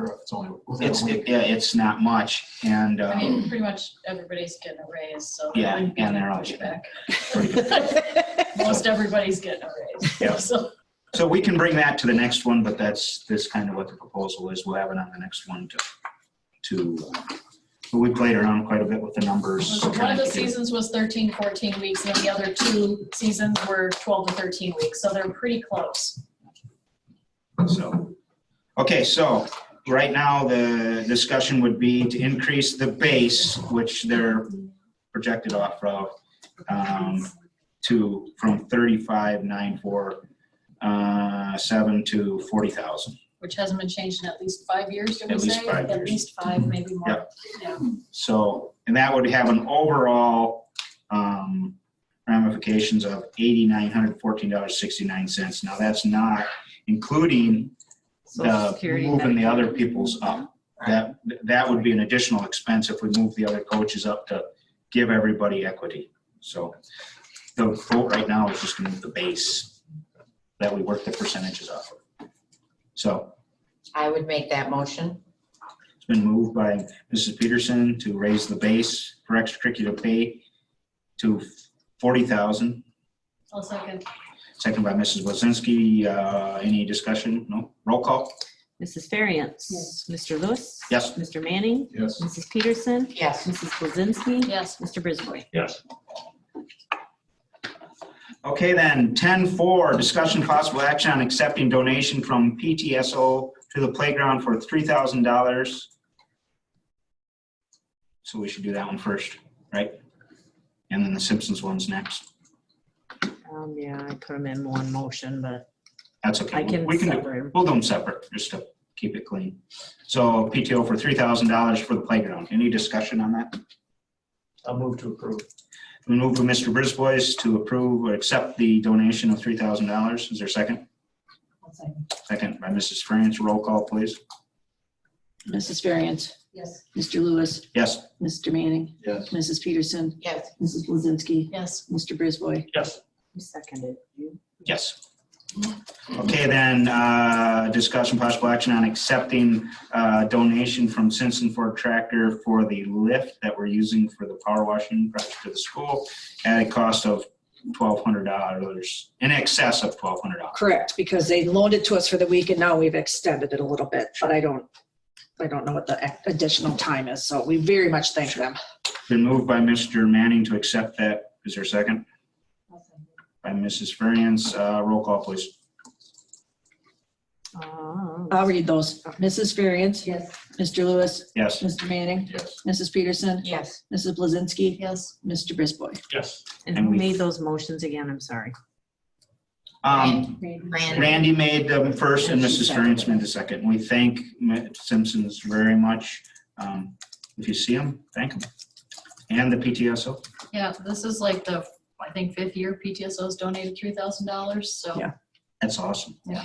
or if it's only within It's, a it- week. yeah, it's not much. And, I um, mean, pretty much everybody's getting a raise, so. Yeah, it wouldn't be and they're much always pushback. Most everybody's getting a raise. Yeah. So so we can bring that to the next one, but that's, this kind of what the proposal is. We'll have it on the next one to, to, uh, but we played around quite a bit with the numbers. one trying of the to get- seasons was 13, 14 weeks, and the other two seasons were 12 to 13 weeks, so they're pretty close. So, okay, so right now the discussion would be to increase the base, which they're projected off of, um, to, from thirty-five, nine, four, uh, seven to forty thousand. Which hasn't been changed in at least five years, did we At least say? five At years. Mm-hmm. least five, maybe more. Yeah. So, and that would have an overall, um, ramifications of eighty-nine hundred fourteen dollars sixty-nine cents. Now, that's not including Social the, Security, moving the Medicaid. other people's up. That, that would be an additional expense if we move the other coaches up to give everybody equity. So the vote right now is just to move the base that we work the percentages off of. So I would make that motion. it's been moved by Mrs. Peterson to raise the base for extracurricular pay to forty thousand, I'll second. second by Mrs. Blazinski. Uh, any discussion? No? Roll call? Mrs. Ferriant. Yes. Mr. Lewis. Yes. Mr. Manning. Yes. Mrs. Peterson. Yes. Mrs. Blazinski. Yes. Mr. Brisboy. Yes. Okay, then, ten four, discussion possible action on accepting donation from PTSO to the playground for three thousand dollars. So we should do that one first, right? And then the Simpsons one's next. Um, yeah, I put them in one motion, but That's I okay. can We do- separate 'em. We'll do them separate, just to keep it clean. So PTO for three thousand dollars for the playground. Any discussion on that? I'll move to approve. We move with Mr. Brisbois to approve or accept the donation of three thousand dollars. Is there a second? Second by Mrs. France. Roll call, please. Mrs. Variance, Yes. Mr. Lewis, Yes. Mr. Manning, Yes. Mrs. Peterson, Yes. Mrs. Blazinski, Yes. Mr. Brisboy. Yes. You seconded. you? Yes. Okay, then, uh, discussion possible action on accepting uh, donation from Simpson Ford Tractor for the lift that we're using for the power washing project for the school at a cost of $1,200, in excess of $1,200. Correct, because they loaned it to us for the week and now we've extended it a little bit, but I don't, I don't know what the additional time is, so we very much thank them. Been moved by Mr. Manning to accept that. Is there a second? By Mrs. Ferriens. Uh, Roll call, please. Oh. I'll read those. Mrs. Variance, Yes. Mr. Lewis, Yes. Mr. Manning, Yes. Mrs. Peterson, Yes. Mrs. Blazinski, Yes. Mr. Brisboy. Yes. And And who we- made those motions again? I'm sorry. Um, Randy. Randy made the first and Mrs. Ferriens made the second. We thank M- Simpsons very much. Um, If you see them, thank them. And the PTSO. Yeah, this is like the, I think, fifth year PTSO's donated $3,000, so. Yeah. That's awesome. Yeah.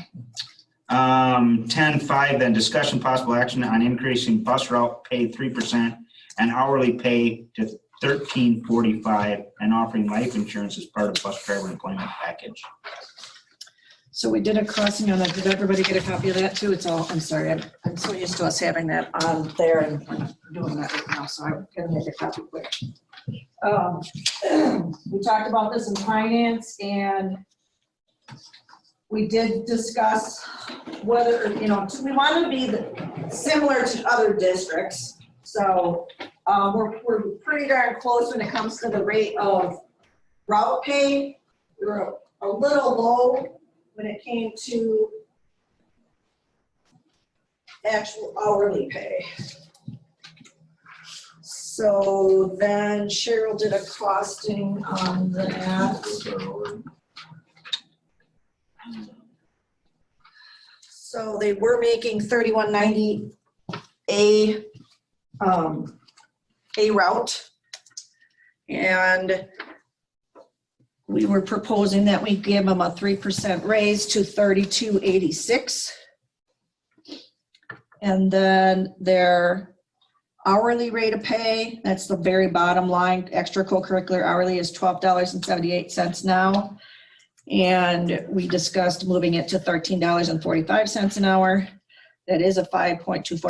Um, ten five, then discussion possible action on increasing bus route pay three percent and hourly pay to thirteen forty-five and offering life insurance as part of bus driver employment package. So we did a crossing on that, did everybody get a copy of that too? It's all, I'm sorry, I'm, I'm so used to us having that on there and we're not doing that right now, so I'm gonna make a copy quick. Um, We talked about this in finance and we did discuss whether, you know, we want to be the- similar to other districts. So um, we're, we're pretty darn close when it comes to the rate of route pay. We're a little low when it came to actual hourly pay. So then Cheryl did a costing on that. So they were making thirty-one ninety a, um, a route. And we were proposing that we give them a three percent raise to thirty-two eighty-six. And then their hourly rate of pay, that's the very bottom line, extra co-curricular hourly is twelve dollars and seventy-eight cents now. And we discussed moving it to thirteen dollars and forty-five cents an hour. That is a five point two four